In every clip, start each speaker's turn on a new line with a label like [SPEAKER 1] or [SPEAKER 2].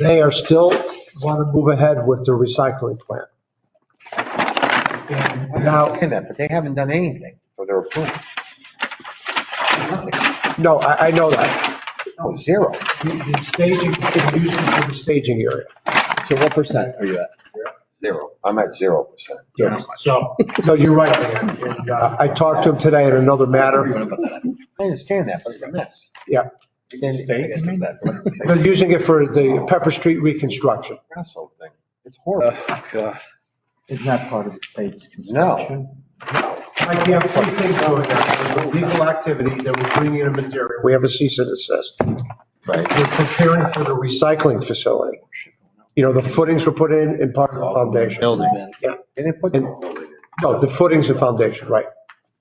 [SPEAKER 1] They are still want to move ahead with their recycling plant.
[SPEAKER 2] I understand that, but they haven't done anything for their approval. Nothing.
[SPEAKER 1] No, I, I know that.
[SPEAKER 2] No, zero.
[SPEAKER 1] The the staging, they use it for the staging area.
[SPEAKER 3] So what percent are you at?
[SPEAKER 2] Zero. I'm at zero percent.
[SPEAKER 1] So, no, you're right. And, uh, I talked to him today on another matter.
[SPEAKER 2] I understand that, but it's a mess.
[SPEAKER 1] Yeah.
[SPEAKER 2] Then I gotta do that, but it's
[SPEAKER 1] They're using it for the Pepper Street reconstruction.
[SPEAKER 2] a asshole thing. It's horrible.
[SPEAKER 4] Is that part of the state's construction?
[SPEAKER 2] No.
[SPEAKER 1] I can't see things going on. Legal activity, they were bringing in material. We have a cease and desist.
[SPEAKER 2] Right.
[SPEAKER 1] We're preparing for the recycling facility. You know, the footings were put in and part of the foundation.
[SPEAKER 3] Building.
[SPEAKER 2] They didn't put.
[SPEAKER 1] No, the footings and foundation, right.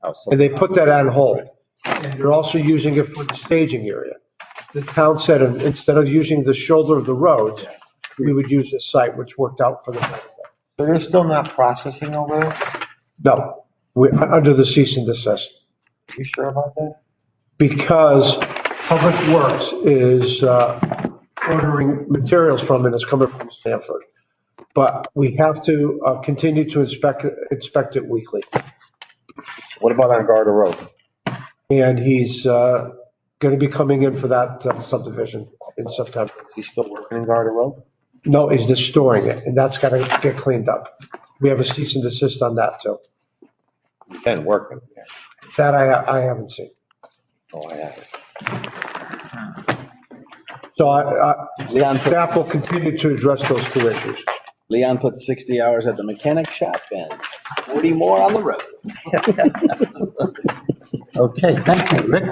[SPEAKER 2] Oh, so-
[SPEAKER 1] And they put that on hold. And they're also using it for the staging area. The town said, uh, instead of using the shoulder of the road, we would use this site, which worked out for the benefit.
[SPEAKER 2] So they're still not processing over there?
[SPEAKER 1] No, we, under the cease and desist,
[SPEAKER 2] You sure about that?
[SPEAKER 1] because Public Works is uh, ordering materials from it, it's coming from Stanford. But we have to uh, continue to inspect, inspect it weekly.
[SPEAKER 2] What about on Garter Road?
[SPEAKER 1] And he's uh, gonna be coming in for that uh, subdivision in September.
[SPEAKER 2] Is he still working in Garter Road?
[SPEAKER 1] No, he's just storing it, and that's gotta get cleaned up. We have a cease and desist on that too.
[SPEAKER 2] He's been working.
[SPEAKER 1] That I, I haven't seen.
[SPEAKER 2] Oh, I have.
[SPEAKER 1] So I, I,
[SPEAKER 3] Leon put,
[SPEAKER 1] staff will continue to address those two issues.
[SPEAKER 3] Leon put 60 hours at the mechanic shop and 40 more on the road.
[SPEAKER 4] Okay, thank you, Rick.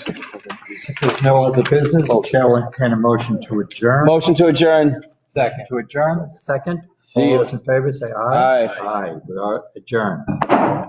[SPEAKER 4] If there's no other business, the Chair will entertain a motion to adjourn.
[SPEAKER 3] Motion to adjourn. Second.
[SPEAKER 4] To adjourn, second.
[SPEAKER 3] See ya.
[SPEAKER 2] 哎
[SPEAKER 4] All those in favor, say aye.
[SPEAKER 3] Aye.
[SPEAKER 4] Aye, we are adjourned.